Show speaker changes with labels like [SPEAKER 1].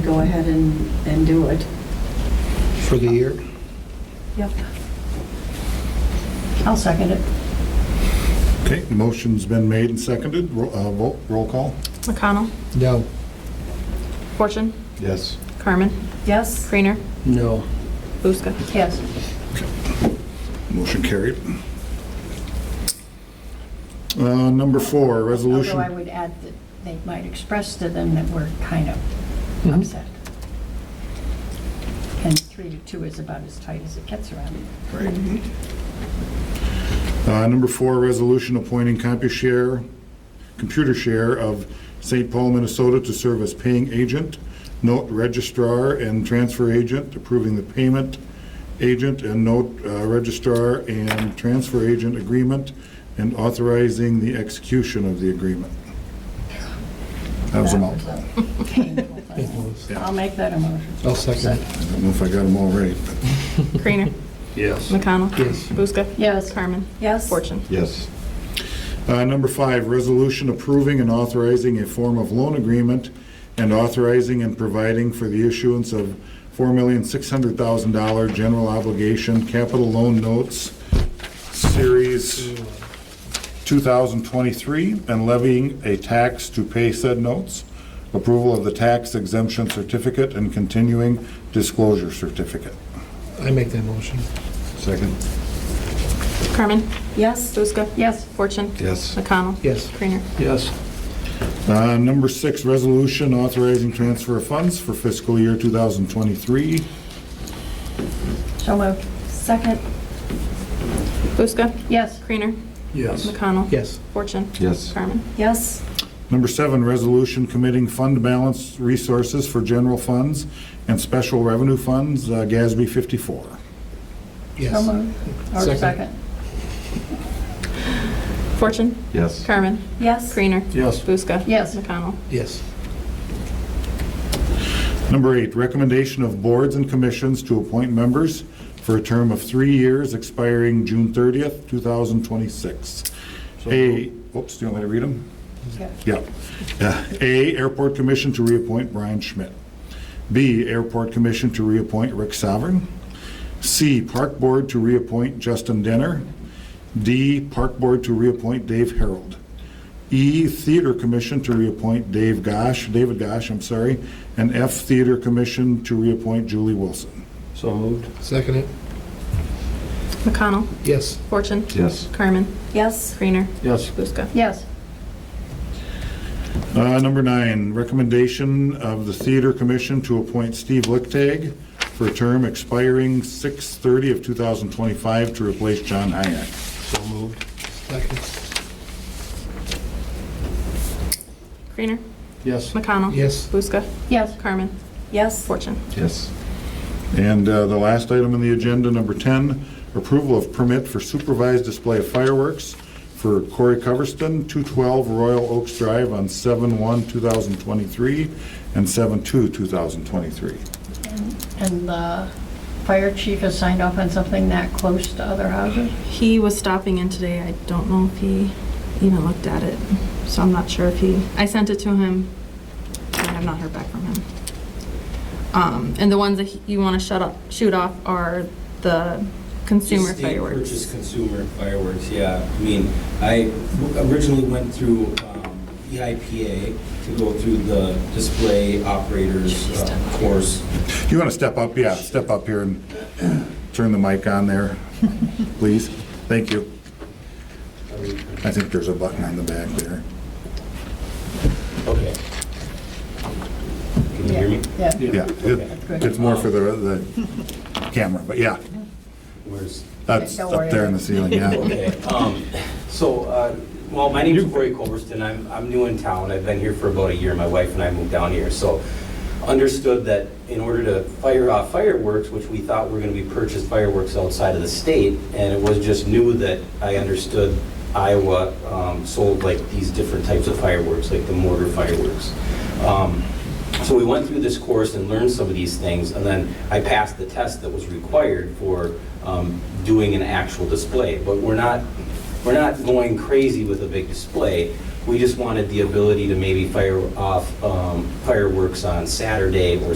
[SPEAKER 1] go ahead and, and do it.
[SPEAKER 2] for the year.
[SPEAKER 1] Yep. I'll second it.
[SPEAKER 3] Okay, motion's been made and seconded. Ro- uh, Vote, roll call?
[SPEAKER 4] McConnell,
[SPEAKER 2] No.
[SPEAKER 4] Fortune,
[SPEAKER 3] Yes.
[SPEAKER 4] Carmen,
[SPEAKER 1] Yes?
[SPEAKER 4] Creener,
[SPEAKER 2] No.
[SPEAKER 4] Buska.
[SPEAKER 1] Yes.
[SPEAKER 3] Motion carried. Uh, Number four, resolution.
[SPEAKER 5] Although I would add that they might express to them that we're kind of upset. And three to two is about as tight as it gets around here.
[SPEAKER 3] Right. Uh, Number four, resolution appointing CompuShare, ComputerShare of St. Paul, Minnesota to serve as paying agent, note registrar and transfer agent, approving the payment agent and note uh, registrar and transfer agent agreement, and authorizing the execution of the agreement. That was a mouthful. I
[SPEAKER 5] Painful thing. I'll make that a motion.
[SPEAKER 2] I'll second it.
[SPEAKER 3] don't know if I got them all right.
[SPEAKER 4] Creener,
[SPEAKER 6] Yes.
[SPEAKER 4] McConnell.
[SPEAKER 2] Yes.
[SPEAKER 4] Buska.
[SPEAKER 5] Yes.
[SPEAKER 4] Carmen,
[SPEAKER 1] Yes?
[SPEAKER 4] Fortune.
[SPEAKER 3] Yes. Uh, Number five, resolution approving and authorizing a form of loan agreement and authorizing and providing for the issuance of $4,600,000 general obligation capital loan notes, Series 2023, and levying a tax to pay said notes, approval of the tax exemption certificate and continuing disclosure certificate.
[SPEAKER 2] I make that motion.
[SPEAKER 3] Second.
[SPEAKER 4] Carmen,
[SPEAKER 1] Yes?
[SPEAKER 4] Buska.
[SPEAKER 5] Yes.
[SPEAKER 4] Fortune.
[SPEAKER 3] Yes.
[SPEAKER 4] McConnell.
[SPEAKER 2] Yes.
[SPEAKER 4] Creener.
[SPEAKER 6] Yes.
[SPEAKER 3] Uh, Number six, resolution authorizing transfer of funds for fiscal year 2023.
[SPEAKER 5] So moved.
[SPEAKER 1] Second?
[SPEAKER 4] Buska.
[SPEAKER 5] Yes.
[SPEAKER 4] Creener,
[SPEAKER 6] Yes.
[SPEAKER 4] McConnell.
[SPEAKER 2] Yes.
[SPEAKER 4] Fortune.
[SPEAKER 3] Yes.
[SPEAKER 4] Carmen,
[SPEAKER 1] Yes?
[SPEAKER 3] Number seven, resolution committing fund balance resources for general funds and special revenue funds, uh, GASB 54.
[SPEAKER 5] So
[SPEAKER 2] Yes.
[SPEAKER 5] moved. Or
[SPEAKER 2] Second.
[SPEAKER 5] second.
[SPEAKER 4] Fortune.
[SPEAKER 3] Yes.
[SPEAKER 4] Carmen,
[SPEAKER 1] Yes?
[SPEAKER 4] Creener.
[SPEAKER 6] Yes.
[SPEAKER 4] Buska.
[SPEAKER 5] Yes.
[SPEAKER 4] McConnell.
[SPEAKER 2] Yes.
[SPEAKER 3] Number eight, recommendation of boards and commissions to appoint members for a term of three years expiring June 30th, 2026. A, oops, do you want me to read them?
[SPEAKER 5] Yeah.
[SPEAKER 3] Yeah. Uh, A, Airport Commission to reappoint Brian Schmidt. B, Airport Commission to reappoint Rick Sovereign. C, Park Board to reappoint Justin Denner. D, Park Board to reappoint Dave Harold. E, Theater Commission to reappoint Dave Gosh, David Gosh, I'm sorry. And F, Theater Commission to reappoint Julie Wilson.
[SPEAKER 6] So moved.
[SPEAKER 2] Second it.
[SPEAKER 4] McConnell.
[SPEAKER 2] Yes.
[SPEAKER 4] Fortune.
[SPEAKER 3] Yes.
[SPEAKER 4] Carmen,
[SPEAKER 1] Yes?
[SPEAKER 4] Creener.
[SPEAKER 6] Yes.
[SPEAKER 4] Buska.
[SPEAKER 5] Yes.
[SPEAKER 3] Uh, Number nine, recommendation of the Theater Commission to appoint Steve Lichtag for a term expiring 6/30 of 2025 to replace John Hayek.
[SPEAKER 6] So moved.
[SPEAKER 2] Second.
[SPEAKER 4] Creener,
[SPEAKER 6] Yes.
[SPEAKER 4] McConnell.
[SPEAKER 2] Yes.
[SPEAKER 4] Buska.
[SPEAKER 5] Yes.
[SPEAKER 4] Carmen,
[SPEAKER 1] Yes?
[SPEAKER 4] Fortune.
[SPEAKER 3] Yes. And uh, the last item on the agenda, number 10, approval of permit for supervised display of fireworks for Corey Coverston, 212 Royal Oaks Drive on 7/1/2023 and 7/2/2023.
[SPEAKER 5] And the fire chief has signed off on something that close to other houses?
[SPEAKER 4] He was stopping in today. I don't know if he even looked at it, so I'm not sure if he, I sent it to him, and I've not heard back from him. Um, and the ones that he- you want to shut up, shoot off are the consumer
[SPEAKER 7] Just state
[SPEAKER 4] fireworks.
[SPEAKER 7] Purchase consumer fireworks, yeah. I mean, I originally went through um, EIPA to go through the display operators uh, course.
[SPEAKER 3] You want to step up, yeah, step up here and turn the mic on there, please? Thank you. I think there's a button on the back there.
[SPEAKER 7] Okay. Can you hear me?
[SPEAKER 5] Yeah.
[SPEAKER 3] Yeah, it- it's more for the, the camera, but yeah,
[SPEAKER 7] Where's?
[SPEAKER 3] that's up there in the ceiling, yeah.
[SPEAKER 7] Okay, um, so, uh, well, my name's Corey Culverston, I'm, I'm new in town, I've been here for about a year, my wife and I moved down here, so understood that in order to fire off fireworks, which we thought were gonna be purchased fireworks outside of the state, and it was just new that I understood Iowa um, sold like these different types of fireworks, like the mortar fireworks. Um, so we went through this course and learned some of these things, and then I passed the test that was required for um, doing an actual display. But we're not, we're not going crazy with a big display. We just wanted the ability to maybe fire off um, fireworks on Saturday or